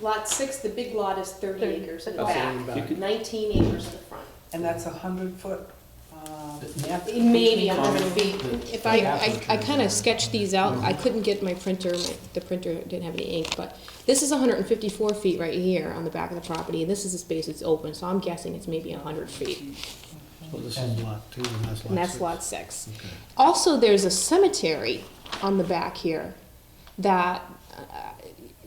Lot six, the big lot is thirty Thirty. acres in the Oh, so in the back, back. but nineteen acres in the front. And that's a hundred foot, um, yeah? Maybe a hundred Common. feet. If I, I, I kinda sketched these out, I couldn't get my printer, my, the printer didn't have any ink, but this is hundred and fifty-four feet right here on the back of the property, and this is the space that's open, so I'm guessing it's maybe hundred feet, Well, this is lot two, and that's lot and that's six. lot six. Okay. Also, there's a cemetery on the back here that, uh,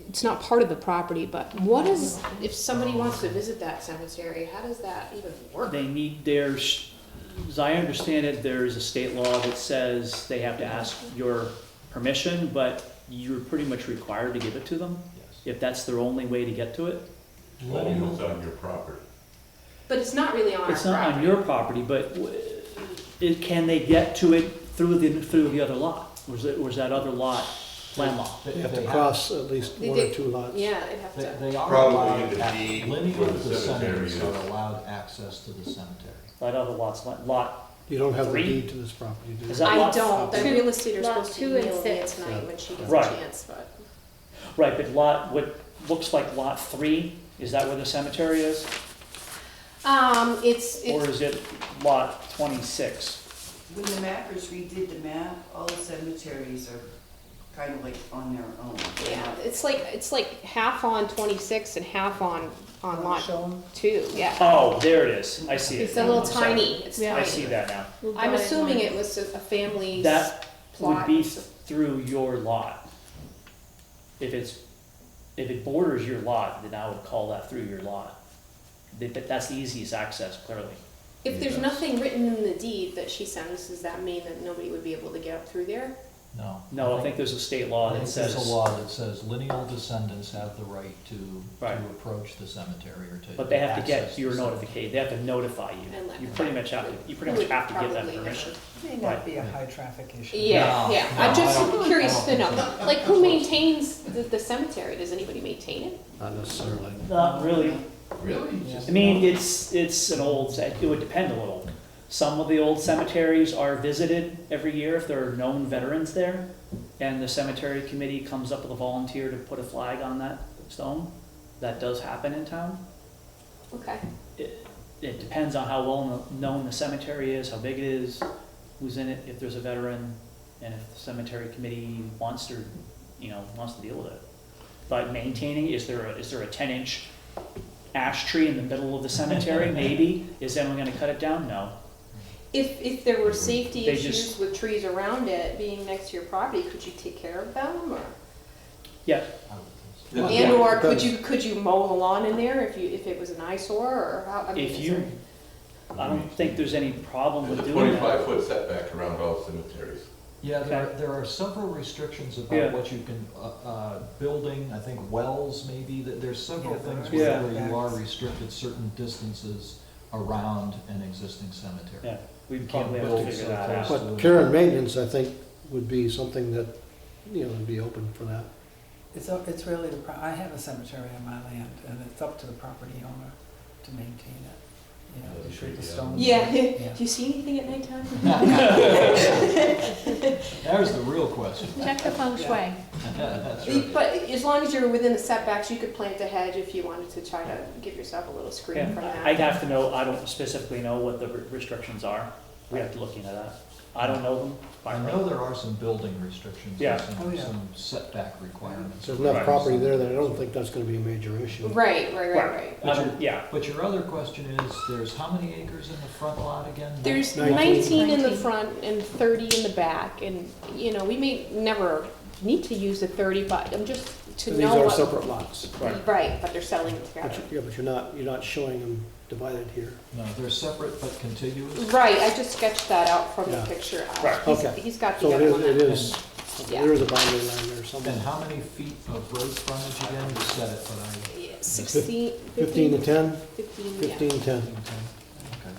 it's not part of the property, but what is, If somebody wants to visit that cemetery, how does that even work? They need their, s- as I understand it, there's a state law that says they have to ask your permission, but you're pretty much required to give it to them, if that's their only way to get to it. Only what's on your property. But it's not really on our It's not on property. your property, but w- it, can they get to it through the, through the other lot? Was it, was that other lot landlocked? They have to cross at least They one or did- two lots. Yeah, it'd have They, to, they are Probably allowed, the ac- deed lineal where the cemetery descendants is. are allowed access to the cemetery. That other lot's la- lot, You don't have the Three? deed to this property, do you? Is that- I lot- don't, the Two- real estate is lot supposed to two and email me six. tonight when she gets a Right. chance, but. right, but lot, what looks like lot three, is that where the cemetery is? Um, it's, Or it's, is it lot twenty-six? When the mappers redid the map, all the cemeteries are kind of like on their own. yeah, it's like, it's like half on twenty-six and half on, on lot two, yeah. Oh, there it is. I see it. it's a little I'm sorry. tiny, it's Yeah. I see tiny. that now. I'm assuming it was a family's That would plot. be through your lot. If it's, if it borders your lot, then I would call that through your lot. That, that- that's the easiest access, clearly. If there's nothing written in the deed that she sends, does that mean that nobody would be able to get up through there? No. No, I think there's a state law I that think there's says. a law that says lineal descendants have the right to, Right. to approach the cemetery or to. But they have to access get the your cemetery. notification, they have to notify you. And let You them pretty know. much have to, you pretty much Would have to give them probably permission. May Right. not be a high traffic issue. Yeah, No, yeah, I'm no, I just don't- curious I to don't know, think like, who maintains the, the cemetery, does anybody maintain it? Not necessarily. Not really. Really? I mean, it's, it's an old, it would depend a little. Some of the old cemeteries are visited every year if there are known veterans there, and the cemetery committee comes up with a volunteer to put a flag on that stone. That does happen in town. Okay, It, it depends on how well kno- known the cemetery is, how big it is, who's in it, if there's a veteran, and if the cemetery committee wants to, you know, wants to deal with it. But maintaining, is there, a- is there a ten-inch ash tree in the middle of the cemetery? Maybe. Is anyone gonna cut it down? No. if, if there were safety They issues just- with trees around it being next to your property, could you take care of them, or? Yeah, I would think so. Yeah, And or could depends. you, could you mow the lawn in there if you, if it was an eyesore, or how, I mean, if is you, there- I don't think there's any problem There's with a doing that. twenty-five foot setback around all cemeteries. Yeah, there, Okay. there are several restrictions Yeah. about what you can, uh, uh, building, I think wells maybe, that there's several Yeah, things there are where where you are setbacks. restricted certain distances around an existing cemetery. Yeah, we You can't probably have to build figure so that close out. to But it. care and maintenance, I think, would be something that, you know, would be open for that. It's, up- it's really the, pro- I have a cemetery on my land, and it's up to the property owner to maintain it. You know, Yeah, to treat the yeah. stones. Yeah, Yeah. do you see anything at nighttime? There's the real question. Check the feng shui. That's The- right. But as long as you're within the setbacks, you could plant a hedge if you wanted to try to give yourself a little Yeah, screen from I- I'd that. have to know, I don't specifically know what the re- restrictions are. We have to look into that. I don't know them. by I heart. know there are some building restrictions, Yeah. and Oh, some, yeah. some setback requirements. There's enough Right. property there that I don't think that's gonna be a major issue. Right, right, right, right. I don't- Yeah, But your other question is, there's how many acres in the front lot again? There's Nineteen. nineteen in the front and thirty in the back, and, you know, we may never need to use the thirty, but I'm just to These know are what. separate lots. right. Right, but they're selling it But together. you- Yeah, but you're not, you're not showing them divided here. No, they're separate but contiguous. Right, I just sketched that out from the Yeah. picture. Uh, Right. he's- Okay. He's got So the it other is, one. it up. is, Yeah. there is a boundary line there And somewhere. how many feet of road frontage again? You said it, but I, Yeah, Sixteen, Fifteen to fifteen, ten? fifteen, yeah. Fifteen, ten. okay.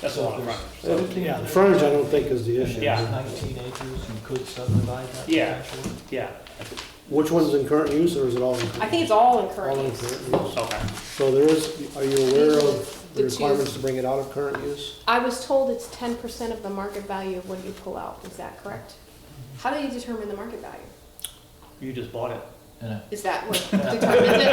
That's a lot of frontage. Yeah, the frontage I don't think is the issue. Yeah. Nineteen acres, you could subdivide that Yeah. potentially? Yeah, Which one's in current use, or is it all in? I think it's all in All in current use. current use? okay. So there is, are you aware of The the two- requirements to bring it out of current use? I was told it's ten percent of the market value of what you pull out, is that correct? How do you determine the market value? You just bought it. And I- Is that what determines it?